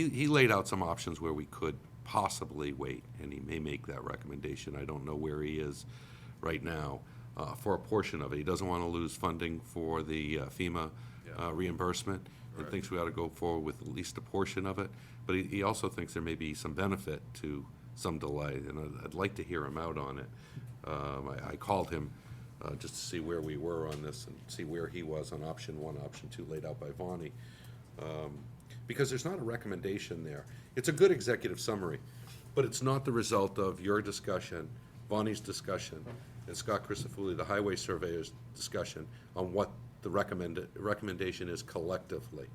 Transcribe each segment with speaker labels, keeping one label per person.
Speaker 1: He, he laid out some options where we could possibly wait, and he may make that recommendation. I don't know where he is right now uh, for a portion of it. He doesn't want to lose funding for the uh, FEMA uh, reimbursement, and thinks we ought to go forward with at least a portion of it. But he, he also thinks there may be some benefit to some delay, and I'd, I'd like to hear him out on it. Um, I, I called him uh, just to see where we were on this and see where he was on option one, option two laid out by Vonnie because there's not a recommendation there. It's a good executive summary, but it's not the result of your discussion, Bonnie's discussion, and Scott Christofouli, the highway surveyor's discussion on what the recommended, recommendation is collectively.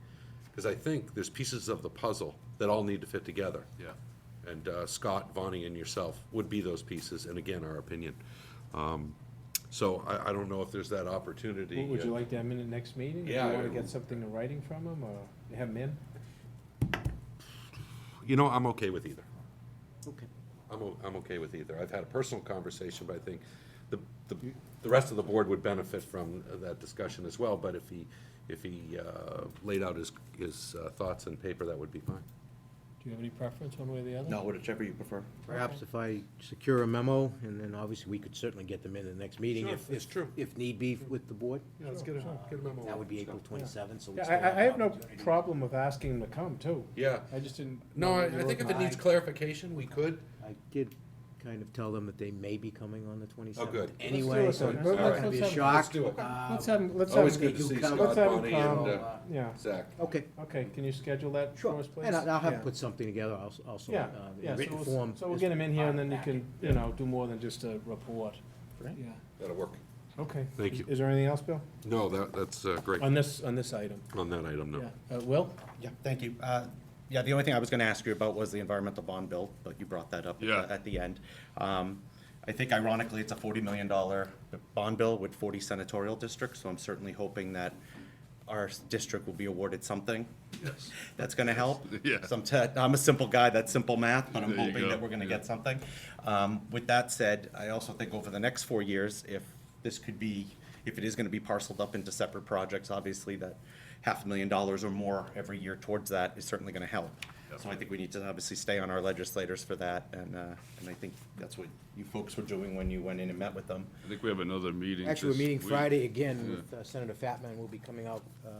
Speaker 1: Because I think there's pieces of the puzzle that all need to fit together.
Speaker 2: Yeah.
Speaker 1: And uh, Scott, Bonnie, and yourself would be those pieces, and again, our opinion. Um, So I, I don't know if there's that opportunity.
Speaker 3: Would you like to have him in the next meeting?
Speaker 1: Yeah,
Speaker 3: Do you want
Speaker 1: I-
Speaker 3: to get something in writing from him, or have him in?
Speaker 1: You know, I'm okay with either.
Speaker 4: Okay.
Speaker 1: I'm, o- I'm okay with either. I've had a personal conversation, but I think the, the, the rest of the board would benefit from that discussion as well. But if he, if he uh, laid out his, his uh, thoughts in paper, that would be fine.
Speaker 3: Do you have any preference, one way or the other?
Speaker 2: No, whichever you prefer.
Speaker 4: Perhaps if I secure a memo, and then obviously we could certainly get them in the next meeting if,
Speaker 1: Sure, it's
Speaker 4: if,
Speaker 1: true.
Speaker 4: if need be with the board.
Speaker 1: Yeah, let's get a, get a memo.
Speaker 4: That would be April twenty-seventh, so we
Speaker 3: Yeah,
Speaker 4: still have.
Speaker 3: I, I have
Speaker 4: an
Speaker 3: no
Speaker 4: opportunity.
Speaker 3: problem with asking him to come, too.
Speaker 1: Yeah.
Speaker 3: I just didn't.
Speaker 1: No, I, I think if it needs
Speaker 3: I-
Speaker 1: clarification, we could.
Speaker 4: I did kind of tell them that they may be coming on the twenty-seventh.
Speaker 1: Oh, good. Let's do
Speaker 4: Anyway,
Speaker 3: it
Speaker 4: so
Speaker 3: then.
Speaker 4: it's not
Speaker 3: Alright.
Speaker 4: gonna be a
Speaker 3: Let's
Speaker 4: shock.
Speaker 1: Let's do it.
Speaker 4: Uh,
Speaker 3: Let's have, him- let's have.
Speaker 1: Always
Speaker 3: him-
Speaker 1: good to
Speaker 4: do
Speaker 1: see
Speaker 4: come.
Speaker 1: Scott,
Speaker 3: Let's have him
Speaker 1: Bonnie, and
Speaker 3: come.
Speaker 1: uh,
Speaker 3: Yeah,
Speaker 1: Zach.
Speaker 4: Okay,
Speaker 3: okay, can you schedule that for
Speaker 4: sure,
Speaker 3: us, please?
Speaker 4: and I- I'll
Speaker 3: Yeah.
Speaker 4: have put something together also, also,
Speaker 3: Yeah,
Speaker 4: uh,
Speaker 3: yeah,
Speaker 4: in
Speaker 3: so
Speaker 4: written
Speaker 3: we'll-
Speaker 4: form.
Speaker 3: So we'll
Speaker 4: as uh,
Speaker 3: get him in here, and then you
Speaker 4: part of
Speaker 3: can, you know, do more than just a report.
Speaker 4: Right.
Speaker 3: Yeah.
Speaker 1: That'll work.
Speaker 3: Okay.
Speaker 1: Thank
Speaker 3: Is-
Speaker 1: you.
Speaker 3: Is there anything else, Bill,
Speaker 1: No, that, that's uh, great.
Speaker 3: on this, on this item?
Speaker 1: On that item, no.
Speaker 3: Yeah. Uh, Will?
Speaker 5: Yeah, thank you. Uh, Yeah, the only thing I was going to ask you about was the environmental bond bill, but you brought that up at the-
Speaker 2: Yeah.
Speaker 5: at the end. Um, I think ironically, it's a $40 million bond bill with 40 senatorial districts, so I'm certainly hoping that our s- district will be awarded something. Yes. That's going to help.
Speaker 2: Yeah.
Speaker 5: Some te- I'm a simple guy, that's simple math, but I'm
Speaker 2: There you
Speaker 5: hoping
Speaker 2: go.
Speaker 5: that we're going to
Speaker 2: Yeah.
Speaker 5: get something. Um, With that said, I also think over the next four years, if this could be, if it is gonna be parceled up into separate projects, obviously that half a million dollars or more every year towards that is certainly gonna help. So I think we need to obviously stay on our legislators for that, and, uh, and I think that's what you folks were doing when you went in and met with them.
Speaker 2: I think we have another meeting.
Speaker 4: Actually, we're
Speaker 2: this
Speaker 4: meeting
Speaker 2: week.
Speaker 4: Friday again
Speaker 2: Yeah.
Speaker 4: with uh, Senator Fatman, will be coming out, um,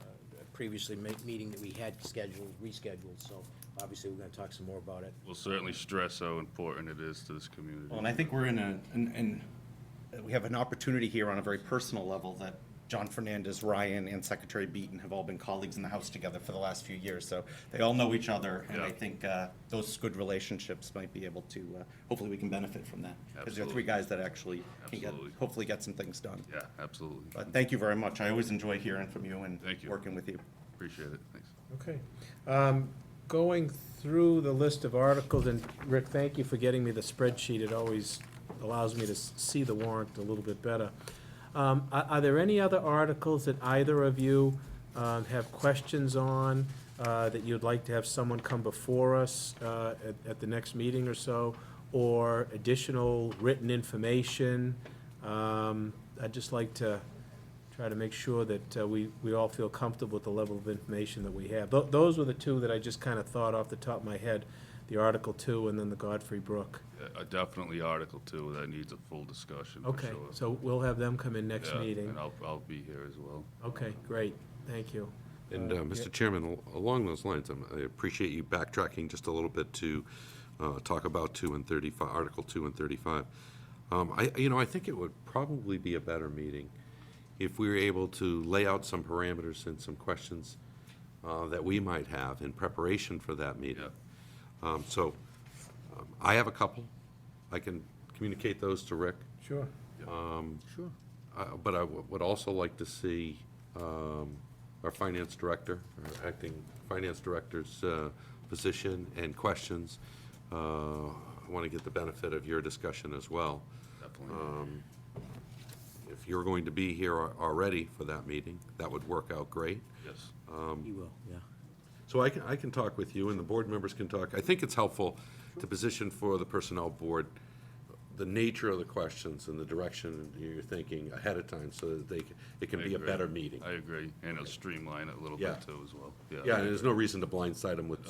Speaker 4: uh, previously ma- meeting that we had scheduled, rescheduled, so obviously we're gonna talk some more about it.
Speaker 2: We'll certainly stress how important it is to this community.
Speaker 5: Well, and I think we're in a, and, and we have an opportunity here on a very personal level that John Fernandez, Ryan, and Secretary Beaton have all been colleagues in the House together for the last few years, so they all know each other, and I
Speaker 2: Yeah.
Speaker 5: think, uh, those good relationships might be able to, uh, hopefully we can benefit from that. Because they're
Speaker 2: Absolutely.
Speaker 5: three guys that actually can get,
Speaker 2: Absolutely.
Speaker 5: hopefully get some things done.
Speaker 2: Yeah, absolutely.
Speaker 5: But thank you very much, I always enjoy hearing from you and
Speaker 2: Thank you.
Speaker 5: working with you.
Speaker 2: Appreciate it. Thanks.
Speaker 3: Okay. Um, Going through the list of articles, and Rick, thank you for getting me the spreadsheet. It always allows me to s- see the warrant a little bit better. Um, Are are there any other articles that either of you um, have questions on, uh, that you'd like to have someone come before us uh, at at the next meeting or so, or additional written information? Um, I'd just like to try to make sure that uh, we, we all feel comfortable with the level of information that we have. Tho- Those were the two that I just kind of thought off the top of my head, the Article Two and then the Godfrey Brook.
Speaker 2: Uh, Definitely Article Two, that needs a full discussion for
Speaker 3: Okay,
Speaker 2: sure.
Speaker 3: so we'll have them come in next
Speaker 2: Yeah,
Speaker 3: meeting.
Speaker 2: And I'll, I'll be here as well.
Speaker 3: Okay, great, thank you.
Speaker 1: And, uh, Mr. Chairman, al- along those lines, um, I appreciate you backtracking just a little bit to uh, talk about 2 and 35, Article 2 and 35. Um, I, you know, I think it would probably be a better meeting if we were able to lay out some parameters and some questions uh, that we might have in preparation for that meeting. Um, So um, I have a couple. I can communicate those to Rick.
Speaker 3: Sure.
Speaker 1: Uh, But I w- would also like to see um, our finance director, our acting finance director's uh, position and questions. Uh, I want to get the benefit of your discussion as well. Um,
Speaker 2: Definitely.
Speaker 1: If you're going to be here al- already for that meeting, that would work out great.
Speaker 2: Yes.
Speaker 4: You will, yeah.
Speaker 1: So I can, I can talk with you, and the board members can talk. I think it's helpful to position for the Personnel Board the nature of the questions and the direction you're thinking ahead of time so that they, c- it can
Speaker 2: I
Speaker 1: be a
Speaker 2: agree.
Speaker 1: better meeting.
Speaker 2: I agree, and it'll streamline it a little
Speaker 1: Yeah.
Speaker 2: bit too as well, yeah.
Speaker 1: Yeah, and there's no reason to blindside them with